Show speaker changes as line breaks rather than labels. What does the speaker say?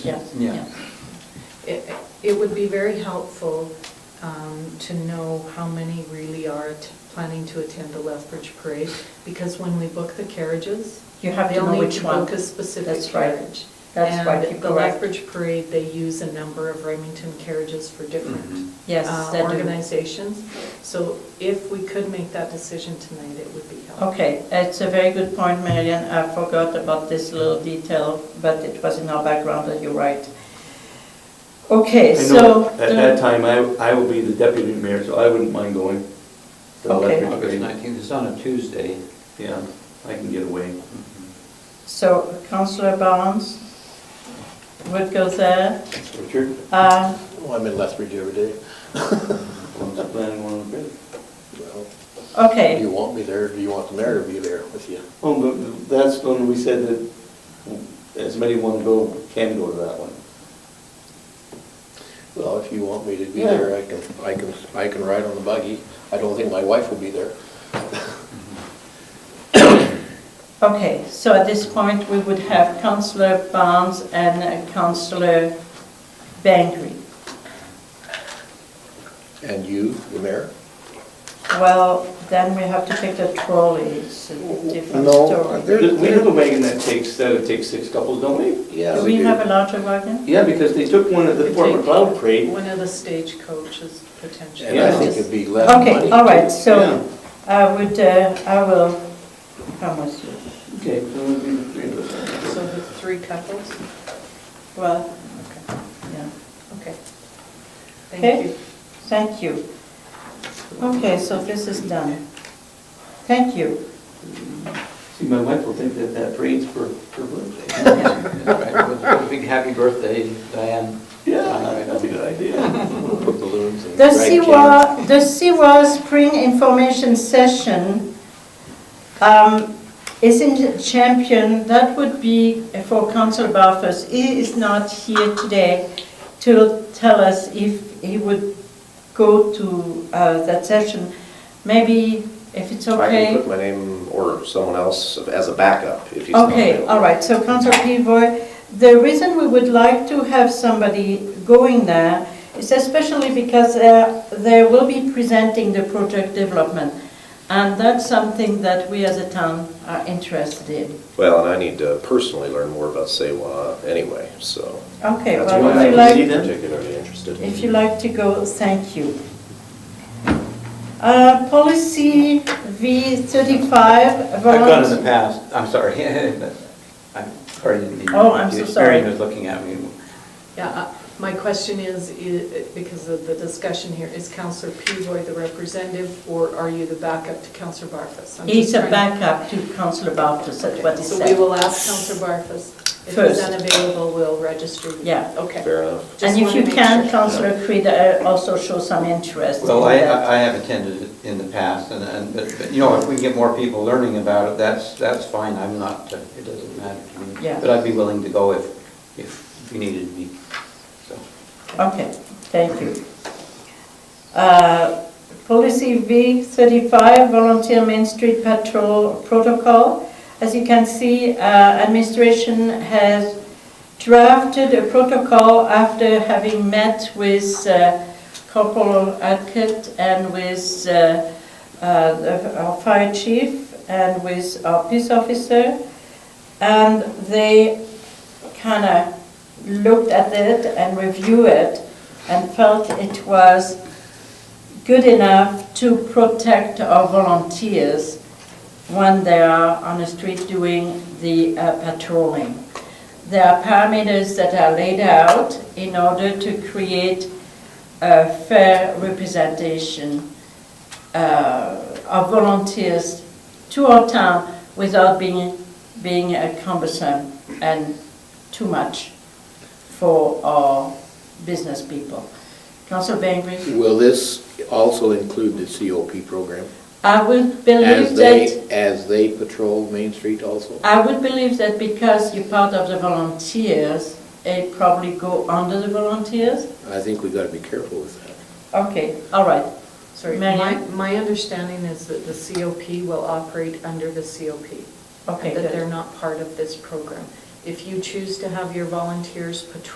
Yes.
Yeah,
Yeah.
yeah. It, it would be very helpful um, to know how many really are t- planning to attend the Lethbridge Parade, because when we book the carriages,
You have to know which
They only
one.
book a specific
That's right.
carriage.
That's right, you're
And the
correct.
Lethbridge Parade, they use a number of Remington carriages for
Mhm.
Mm-hmm.
different
Yes,
uh,
they do.
organizations. So if we could make that decision tonight, it would be helpful.
Okay, it's a very good point, Marian. I forgot about this little detail, but it was in our background that you're right. Okay,
I know
so. uh,
At that time, I, I will be the deputy mayor, so I wouldn't mind going. to the
Okay.
Lethbridge
August
Parade.
19th, it's on a Tuesday.
Yeah, I can get away.
So Councillor Barnes would go there.
Richard?
Uh,
Well, I'm in Lethbridge every day.
When's the plan on the bid?
Well, Do
Okay,
you want me there, do you want the mayor to be there with you?
Oh, but that's when we said that as many want go, can go to that one.
Well, if you want me to be
Yeah.
there, I can, I can, I can ride on the buggy. I don't think my wife will be there.
okay, so at this point, we would have Councillor Barnes and uh, Councillor Bangery.
And you, the mayor?
Well, then we have to pick the trolley, it's a different
No, uh,
story.
there-
We have a wagon that takes, that takes six couples, don't we?
Yeah,
Do we have a larger wagon?
Yeah, because they took one at the
They
Fort
take-
McLeod parade.
One of the stagecoaches potentially.
And I
Yeah.
think it'd be less money.
Okay, all right,
Yeah.
so I would, uh, I will, how much?
Okay, then we'll be the three of us.
So the three couples?
Well, yeah,
Okay.
Okay.
Thank you.
thank you. Okay, so this is done. Thank you.
See, my wife will think that that parade's for her birthday.
Right, with a Big happy birthday, Diane.
Yeah, that's a good idea.
Put balloons and
The
drag cans.
Siwa, the Siwa Spring Information Session um, is in Champion, that would be for Council Barfus. He is not here today to tell us if he would go to uh, that session. Maybe if it's
I can put
okay.
my name or someone else as a backup if he's not
Okay,
available.
all right, so Council Pivoy, the reason we would like to have somebody going there is especially because uh, they will be presenting the project development. And that's something that we as a town are interested in.
Well, and I need to personally learn more about Sewa anyway, so.
Okay,
that's
well,
why
if
I'm
you
see
like,
them.
Particularly interested.
if you like to go, thank you. Uh, Policy V thirty-five,
I've gone in the
volunteer.
past, I'm sorry. but I'm sorry, didn't mean-
Oh, I'm so
Karen
sorry.
was looking at me.
Yeah, uh, my question is, i- because of the discussion here, is Counselor Pivoy the representative, or are you the backup to Counselor Barfus? I'm
He's
just
a
trying-
backup to Councillor Barfus, that's what he
So we
said.
will ask Counselor Barfus. If he's
First.
unavailable, we'll register you.
Yeah.
Okay.
Fair enough.
Just
And if
wanna
you
make
can,
sure.
Councillor Creed uh, also show some interest.
Well,
in
I,
that.
I I have attended it in the past, and, and, but, but, you know, if we get more people learning about it, that's, that's fine, I'm not, uh, it doesn't matter to me.
Yeah.
But I'd be willing to go if, if you needed me, so.
Okay, thank you. Uh, Policy V35, Volunteer Main Street Patrol Protocol. As you can see, uh, administration has drafted a protocol after having met with uh, Corporal Atkett and with uh, uh, the- our fire chief and with our peace officer. And they kind of looked at it and reviewed it and felt it was good enough to protect our volunteers when they are on the street doing the uh, patrolling. There are parameters that are laid out in order to create a fair representation uh, of volunteers to our town without being, being uh, cumbersome and too much for our business people. Council Bainbridge,
Will this also include the COP program?
I would believe
As they,
that,
as they patrol Main Street also?
I would believe that because you're part of the volunteers, it probably go under the volunteers?
I think we gotta be careful with that.
Okay, all right.
Sorry, my,
Marian?
my understanding is that the COP will operate under the COP.
Okay,
That they're
good.
not part of this program. If you choose to have your volunteers patrol